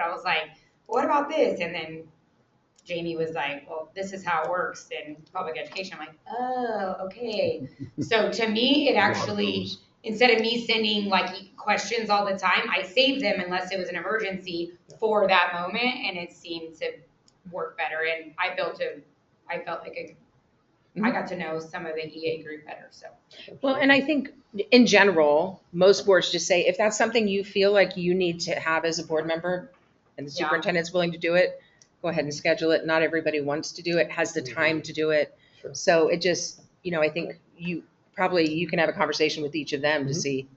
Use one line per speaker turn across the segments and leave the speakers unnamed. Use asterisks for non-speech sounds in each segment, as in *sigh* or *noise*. I was like, what about this? And then Jamie was like, well, this is how it works in public education. I'm like, oh, okay. so to me, it actually, instead of me sending like e, questions all the time, I saved them unless it was an emergency for that moment. And it seemed to work better. And I built a, I felt like a, I got to know some of the EA group better. So
Well, and I think in general, most boards just say, if that's something you feel like you need to have as a board member and the
Yeah.
superintendent's willing to do it, go ahead and schedule it. Not everybody wants to do it, has the time to do it.
Sure.
So it just, you know, I think you, probably you can have a conversation with each of them to
Mhm.
see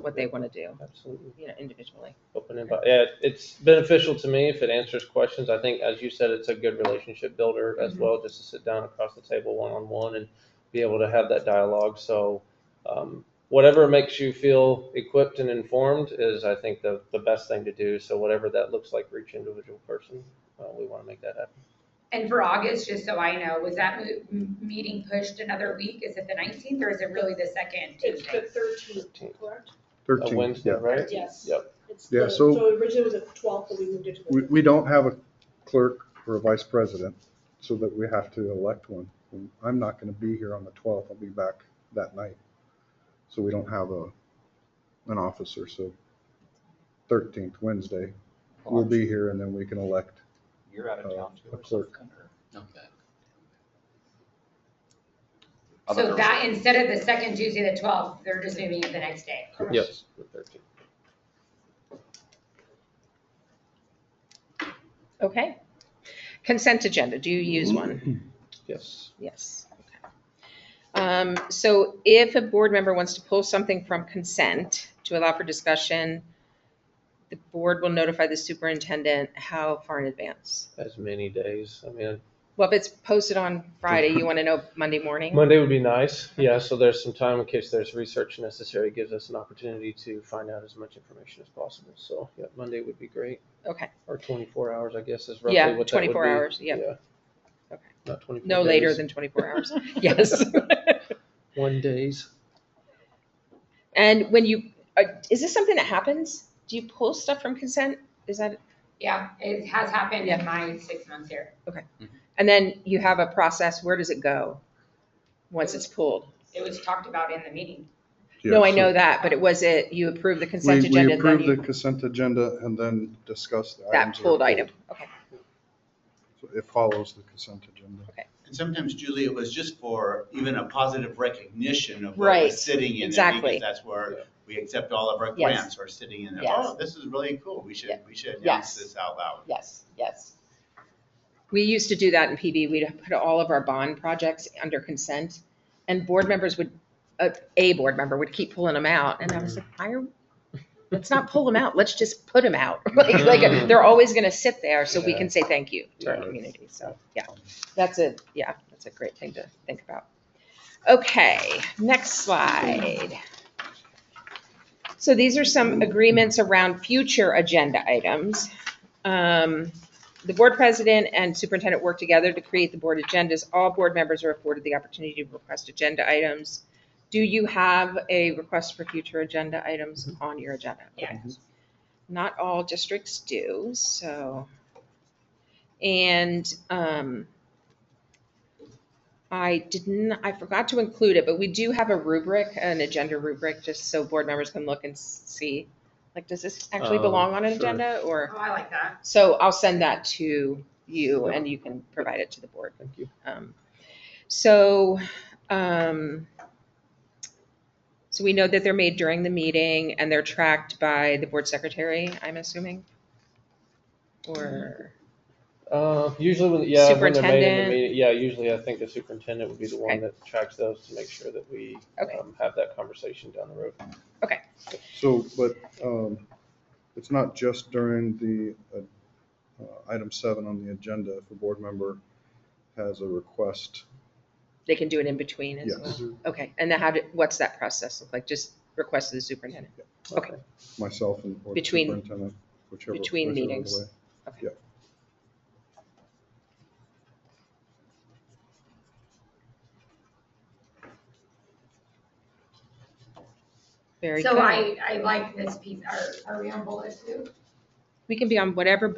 what they want to do,
Absolutely.
you know, individually.
Open invite. Yeah, it's beneficial to me if it answers questions. I think, as you said, it's a good relationship builder as
Mhm.
well, just to sit down across the table one on one and be able to have that dialogue. So, um, whatever makes you feel equipped and informed is, I think, the, the best thing to do. So, whatever that looks like for each individual person, uh, we want to make that happen.
And for August, just so I know, was that mo- m- meeting pushed another week? Is it the nineteenth or is it really the second
It's
Tuesday?
the thirteenth, correct?
A
Thirteenth,
Wednesday,
yeah.
right?
Yes.
Yep.
It's
Yeah,
the-
so-
originally it was the twelfth, but we moved it to
We,
the.
we don't have a clerk or a vice president, so that we have to elect one. And I'm not gonna be here on the twelfth, I'll be back that night. So we don't have a, an officer, so thirteenth, Wednesday, we'll be here and then we can elect.
You're out of town too.
A
or something,
clerk.
or-
Okay. I thought there
So
was-
that, instead of the second Tuesday, the twelfth, they're just moving it the next day.
Yes. the 13th.
Okay. Consent agenda, do you use one?
Yes.
Yes. okay. Um, So if a board member wants to pull something from consent to allow for discussion, the board will notify the superintendent how far in advance?
As many days. I mean,
Well, if it's posted on Friday, you want to know Monday morning?
Monday would be nice, yeah, so there's some time in case there's research necessary, It gives us an opportunity to find out as much information as possible, so, yeah, Monday would be great,
Okay,
or twenty-four hours, I guess, is
Yeah,
roughly what that would
24
be.
hours, yeah. Okay.
Not twenty-four
no later
days.
than 24 hours. *laughs* Yes.
One days,
And when you, uh, is this something that happens? Do you pull stuff from consent? Is that,
Yeah, it has happened
Yeah.
in my six months here.
and then you have a process, where does it go? Once it's pulled?
It was talked about in the meeting.
No, I
Yeah, so
know that, but it was it, you approved the
We,
consent
we
agenda, then
approve the
you,
consent agenda and then discuss the
that
items. are
pulled item. Okay,
So It follows the consent agenda.
And sometimes, Julie, it was just for even a positive recognition of what
Right,
was sitting in it.
exactly.
Because that's
Yeah.
where we accept all of our
Yes.
grants are sitting in there.
Yes.
Oh, this is really cool. We should,
Yeah.
we should
Yes.
announce this out loud.
yes, yes. We used to do that in PB. We'd put all of our bond projects under consent, and board members would, a, a board member would keep pulling them out, and I was like, why are, let's not pull them out, let's just put them out. *laughs* Like,
Mm-hmm.
like, they're always gonna sit there, so we can say thank you to our
Yeah.
community, so, yeah. That's a, yeah, that's a great thing to think about. Okay, next slide. So these are some agreements around future agenda items. Um, The board president and superintendent work together to create the board agendas. All board members are afforded the opportunity to request agenda items. Do you have a request for future agenda items
Mm-hmm.
on your agenda?
Yeah.
Not all districts do, so. And um, I didn't, I forgot to include it, but we do have a rubric, an agenda rubric, just so board members can look and s- see. Like, does this actually
Oh,
belong on an
sure.
agenda or?
Oh, I like that.
So I'll send that to you and you can provide it to the board.
thank you.
Um, So, um, so we know that they're made during the meeting and they're tracked by the board secretary, I'm assuming? Or,
Uh, usually when, yeah, when they're made in
Superintendent.
the meeting, yeah, usually I think the superintendent would be the
Okay.
one that tracks those to make sure that we,
Okay.
um, have that conversation down the road.
So, but um, it's not just during the uh, uh, item seven on the agenda, if a board member has a request,
they can do it in between as well?
yes,
Okay, and then how did, what's that process look like? Just request to the superintendent? Okay.
myself and or the
Between-
superintendent, whichever.
between
whichever
meetings.
way.
Very
So
good.
I, I like this piece. Are, are we on bullet two?
We can be on whatever